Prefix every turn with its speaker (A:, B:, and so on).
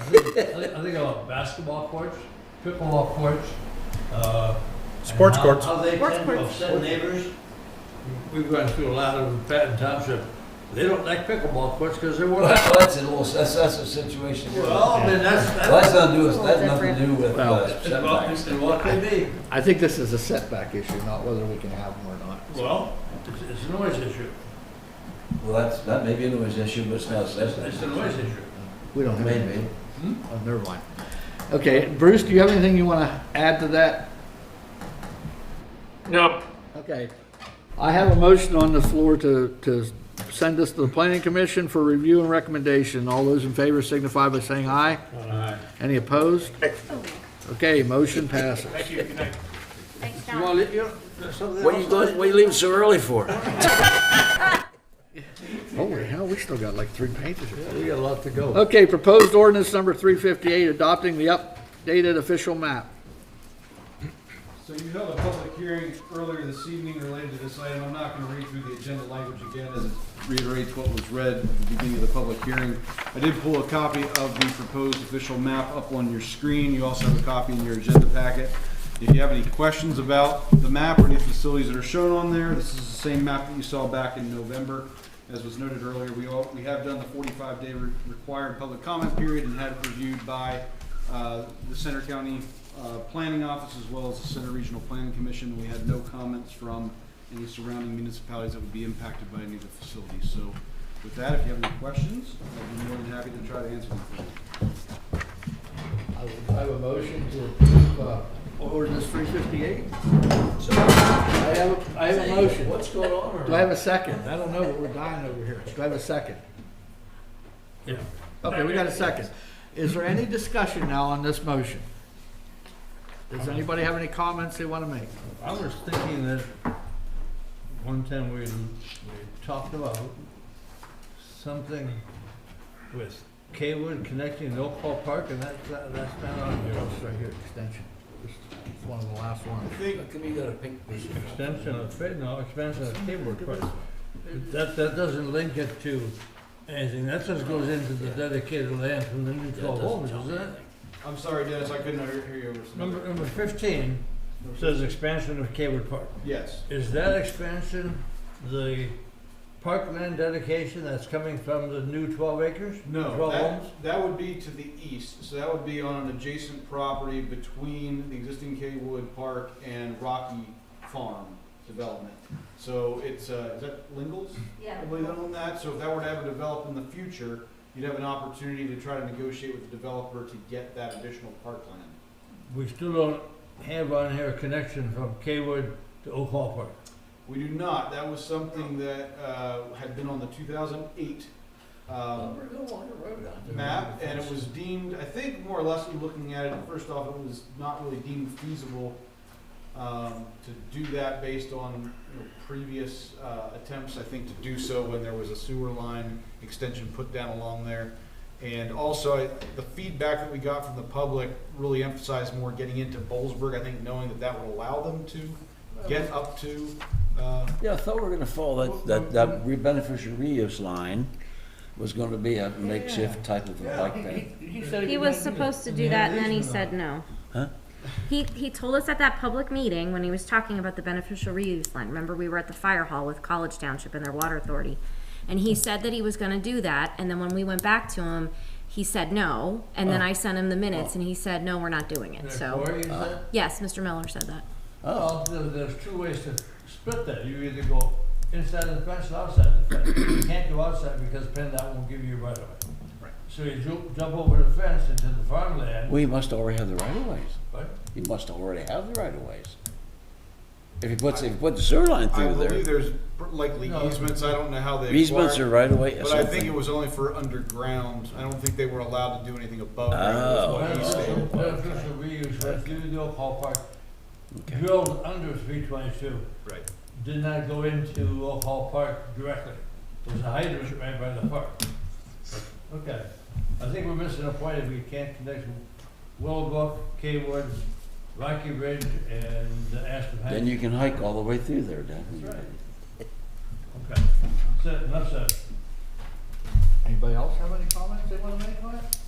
A: I think- I think of basketball courts, pickleball courts, uh. and
B: Sports
A: how-
B: courts.
A: How they
C: Sports
A: tend to
C: courts.
A: upset neighbors. We've gone through a lot of Patton Township, they don't like pickleball courts because they
D: Well,
A: were,
D: that's a little, that's, that's a situation.
A: well, I mean, that's,
D: Well,
A: that's.
D: That's not do,
C: Well,
D: that's nothing to
C: different.
D: do with
E: Well,
D: uh, setbacks.
A: Well, What they be,
E: I think this is a setback issue, not whether we can have them or not.
A: well, it's, it's a noise issue,
D: Well, that's, that may be a noise issue, but it's not a setback.
A: it's a noise issue.
E: We don't have any.
D: Maybe.
E: Oh, never mind. Okay, Bruce, do you have anything you want to add to that?
F: No,
E: Okay. I have a motion on the floor to, to send this to the planning commission for review and recommendation. All those in favor signify by saying aye. Any opposed? Okay, motion passes.
F: thank you, good night.
C: Thanks,
A: You
C: John.
A: wanna, you, there's something else?
G: What you going, what you leaving so early for?
E: Holy hell, we still got like three pages.
A: Yeah, We got a lot to go.
E: Okay, proposed ordinance number three fifty-eight, adopting the updated official map.
H: So you held a public hearing earlier this evening related to this item. I'm not going to read through the agenda language again as it reiterates what was read at the beginning of the public hearing. I did pull a copy of the proposed official map up on your screen. You also have a copy in your agenda packet. If you have any questions about the map or any facilities that are shown on there, this is the same map that you saw back in November. As was noted earlier, we all, we have done the forty-five day re- required public comment period and had it reviewed by, uh, the Center County, uh, Planning Office as well as the Center Regional Planning Commission. We had no comments from any surrounding municipalities that would be impacted by any of the facilities. So with that, if you have any questions, I'd be more than happy to try to answer them for you.
E: I would- I have a motion to approve uh, ordinance three fifty-eight. I have, a I have a motion.
D: What's going on?
E: Do I have a second? I don't know, but we're dying over here. Do I have a second?
A: Yeah.
E: Okay, we got a second. Is there any discussion now on this motion? Does anybody have any comments they want to make?
A: I was thinking that one time we, we talked about something with Kaywood connecting to Oak Hall Park and that, that- that's not on
E: It's
A: here.
E: right here, extension. Just- It's one of the last ones.
G: How come you got a pink piece of-
A: Extension of, Fa- no, expansion of Kaywood Park. That, that doesn't link it to anything. That just goes into the dedicated land from the new
G: That
A: twelve
G: doesn't
A: homes,
G: tell
A: is
G: me
A: it?
G: anything.
H: I'm sorry, Dennis, I couldn't hear hear you over some.
A: Number, number fifteen says expansion of Kaywood Park.
H: Yes,
A: Is that expansion the parkland dedication that's coming from the new twelve acres?
H: no,
A: Twelve
H: that,
A: homes?
H: that would be to the east, so that would be on an adjacent property between the existing Kaywood Park and Rocky Farm Development. So it's, uh, is that Lingles?
C: Yeah.
H: I believe on that, so if that were to ever develop in the future, you'd have an opportunity to try to negotiate with the developer to get that additional parkland.
A: We still don't have on here a connection from Kaywood to Oak Hall Park.
H: We do not, that was something that, uh, had been on the two thousand eight,
G: Well,
H: um,
G: we're gonna want a road out there.
H: map, and it was deemed, I think more or less, when looking at it, first off, it was not really deemed feasible um, to do that based on, you know, previous uh, attempts, I think, to do so when there was a sewer line extension put down along there. And also, I- the feedback that we got from the public really emphasized more getting into Bollesburg, I think, knowing that that would allow them to get up to, uh,
D: Yeah, I thought we were gonna follow that, that, that re- beneficial reuse line was gonna be a makeshift type of a bike path.
C: He was supposed to do that and then he said no.
D: Huh?
C: He, he told us at that public meeting when he was talking about the beneficial reuse line, remember we were at the fire hall with College Township and their water authority? And he said that he was gonna do that, and then when we went back to him, he said no, and then I sent him the minutes and he said, no, we're not doing it, so.
A: Corey, is that?
C: Yes, Mr. Miller said that.
A: Well, there- there's two ways to split that. You either go inside the fence or outside the fence. You can't go outside because PennDOT won't give you a right of way.
H: Right.
A: So you ju- jump over the fence into the farmland,
D: We must already have the right of ways.
A: right?
D: He must already have the right of ways. If he puts, if he put the sewer line
H: I
D: through
H: believe
D: there,
H: there's likely easements, I don't know how they.
D: easements
H: acquired-
D: are right of way,
H: But I think it
D: something.
H: was only for underground. I don't think they were allowed to do anything above
D: Oh.
H: ground. is what he
A: Beneficial
H: stated.
A: beneficial reuse, right, through the Oak Hall Park,
D: Okay.
A: drilled under three twenty-two.
H: Right.
A: did not go into Oak Hall Park directly. There's a hydrant right by the park. Okay, I think we're missing a point if we can't connect Willowbrook, Kaywood, Rocky Ridge, and Aspen Heights.
D: Then you can hike all the way through there, Dan.
A: That's right. Okay, that's it, enough said.
E: Anybody else have any comments they want to make on it?